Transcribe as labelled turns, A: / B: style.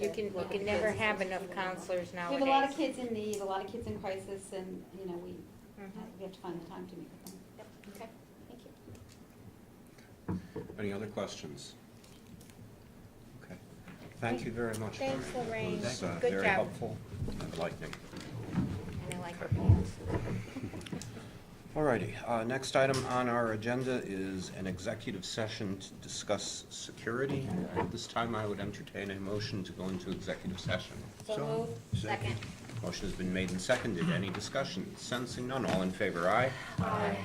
A: You can, you can never have enough counselors
B: We
A: nowadays.
B: have a lot of kids in need, a lot of kids in crisis, and, you know, we,
A: Mhm.
B: we have to find the time to meet with them. Yep, okay, thank you.
C: Any other questions? Okay. Thank you very much.
A: Thanks,
C: Lorraine.
A: Lorraine.
C: It was, uh,
A: Good
C: Very
A: job.
C: helpful and enlightening.
A: And I like her pants.
C: All righty, uh, next item on our agenda is an executive session to discuss security. At this time, I would entertain a motion to go into executive session.
A: So moved. Second.
C: Motion has been made and seconded. Any discussion? Sensing none, all in favor, aye?